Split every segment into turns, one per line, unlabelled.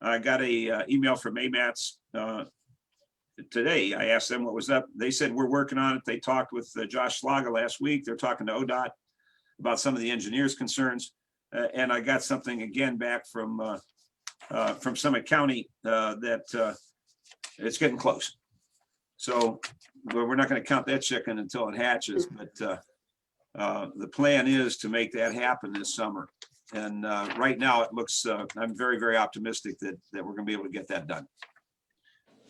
I got a uh, email from AMATS uh, today. I asked them what was up. They said, we're working on it. They talked with uh, Josh Slaga last week. They're talking to ODOT about some of the engineers' concerns. Uh, And I got something again back from, uh, uh, from Summit County uh, that uh, it's getting close. So we're we're not going to count that chicken until it hatches, but uh, uh, the plan is to make that happen this summer. And uh, right now, it looks, uh, I'm very, very optimistic that, that we're going to be able to get that done.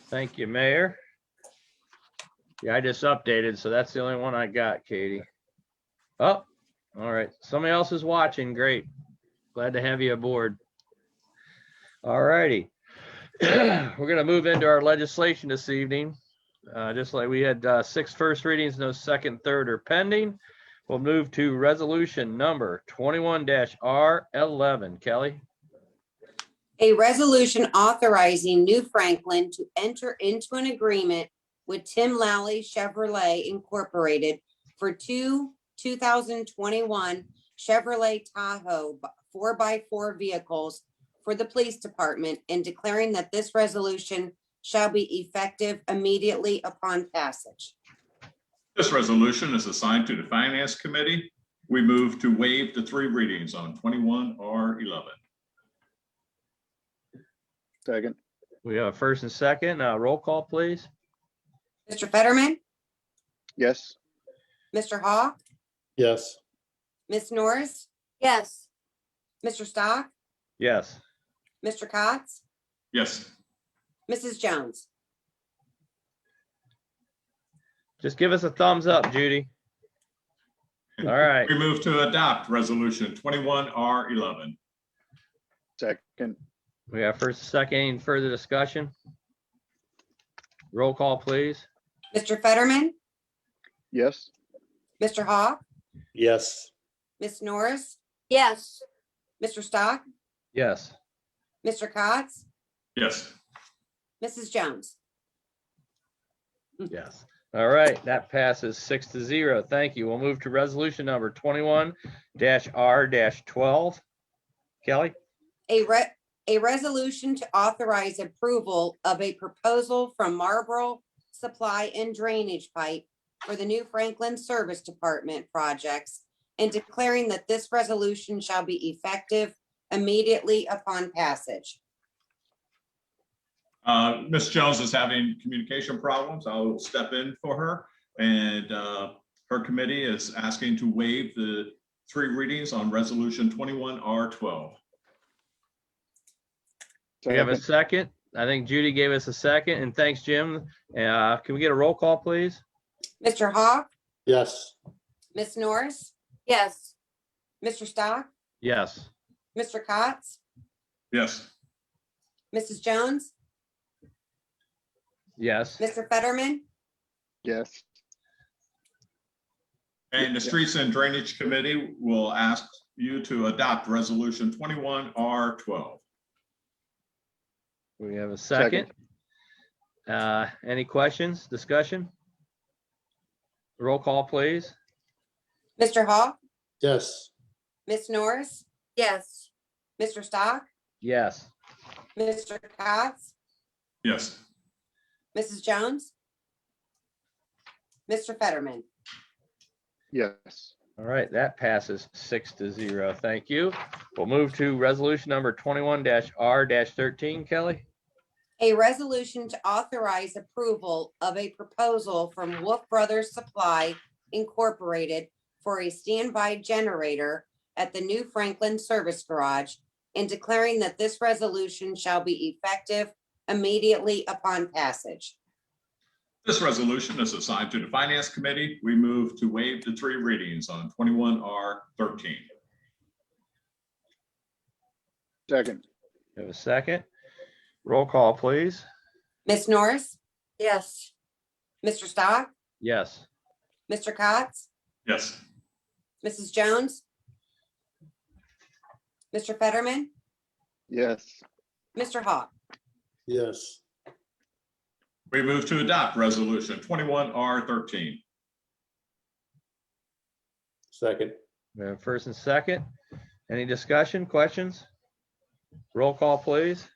Thank you, Mayor. Yeah, I just updated, so that's the only one I got, Katie. Oh, all right. Somebody else is watching. Great. Glad to have you aboard. All righty. We're going to move into our legislation this evening. Uh, Just like we had uh, six first readings, no second, third, or pending. We'll move to resolution number 21-R11. Kelly?
A resolution authorizing New Franklin to enter into an agreement with Tim Lally Chevrolet Incorporated for two two thousand twenty-one Chevrolet Tahoe four x four vehicles for the police department and declaring that this resolution shall be effective immediately upon passage.
This resolution is assigned to the Finance Committee. We move to waive the three readings on 21R11.
Second,
We have a first and second. Uh, Roll call, please.
Mr. Fetterman,
yes,
Mr. Hawk,
yes,
Ms. Norris,
yes,
Mr. Stock,
Yes.
Mr. Cotts,
Yes,
Mrs. Jones.
Just give us a thumbs up, Judy. All right,
we move to adopt Resolution 21R11.
second,
we have first, second, any further discussion? Roll call, please.
Mr. Fetterman,
yes,
Mr. Hawk,
yes,
Ms. Norris,
yes,
Mr. Stock,
Yes.
Mr. Cotts,
Yes,
Mrs. Jones.
Yes. All right, that passes six to zero. Thank you. We'll move to resolution number twenty-one dash R dash twelve. Kelly?
A re- a resolution to authorize approval of a proposal from Marlboro Supply and Drainage Pipe for the new Franklin Service Department projects and declaring that this resolution shall be effective immediately upon passage.
Uh, Ms. Jones is having communication problems. I will step in for her. And uh, her committee is asking to waive the three readings on Resolution 21R12.
We have a
second,
second. I think Judy gave us a second, and thanks, Jim. Uh, can we get a roll call, please?
Mr. Hawk,
yes,
Ms. Norris,
yes,
Mr. Stock,
Yes.
Mr. Cotts,
Yes,
Mrs. Jones,
Yes.
Mr. Fetterman,
yes,
and the Streets and Drainage Committee will ask you to adopt Resolution 21R12.
We have a second. Uh, Any questions, discussion? Roll call, please.
Mr. Hawk,
yes,
Ms. Norris,
yes,
Mr. Stock,
Yes.
Mr. Cotts,
Yes.
Mrs. Jones? Mr. Fetterman?
yes,
All right, that passes six to zero. Thank you. We'll move to resolution number twenty-one R thirteen. Kelly?
A resolution to authorize approval of a proposal from Wolf Brothers Supply Incorporated for a standby generator at the new Franklin Service Garage and declaring that this resolution shall be effective immediately upon passage.
This resolution is assigned to the Finance Committee. We move to waive the three readings on 21R13.
second,
You have a second? Roll call, please.
Ms. Norris,
yes,
Mr. Stock,
Yes.
Mr. Cotts,
Yes,
Mrs. Jones? Mr. Fetterman,
yes,
Mr. Hawk?
yes,
we move to adopt Resolution 21R13.
second,
We have First and second. Any discussion, questions? Roll call, please.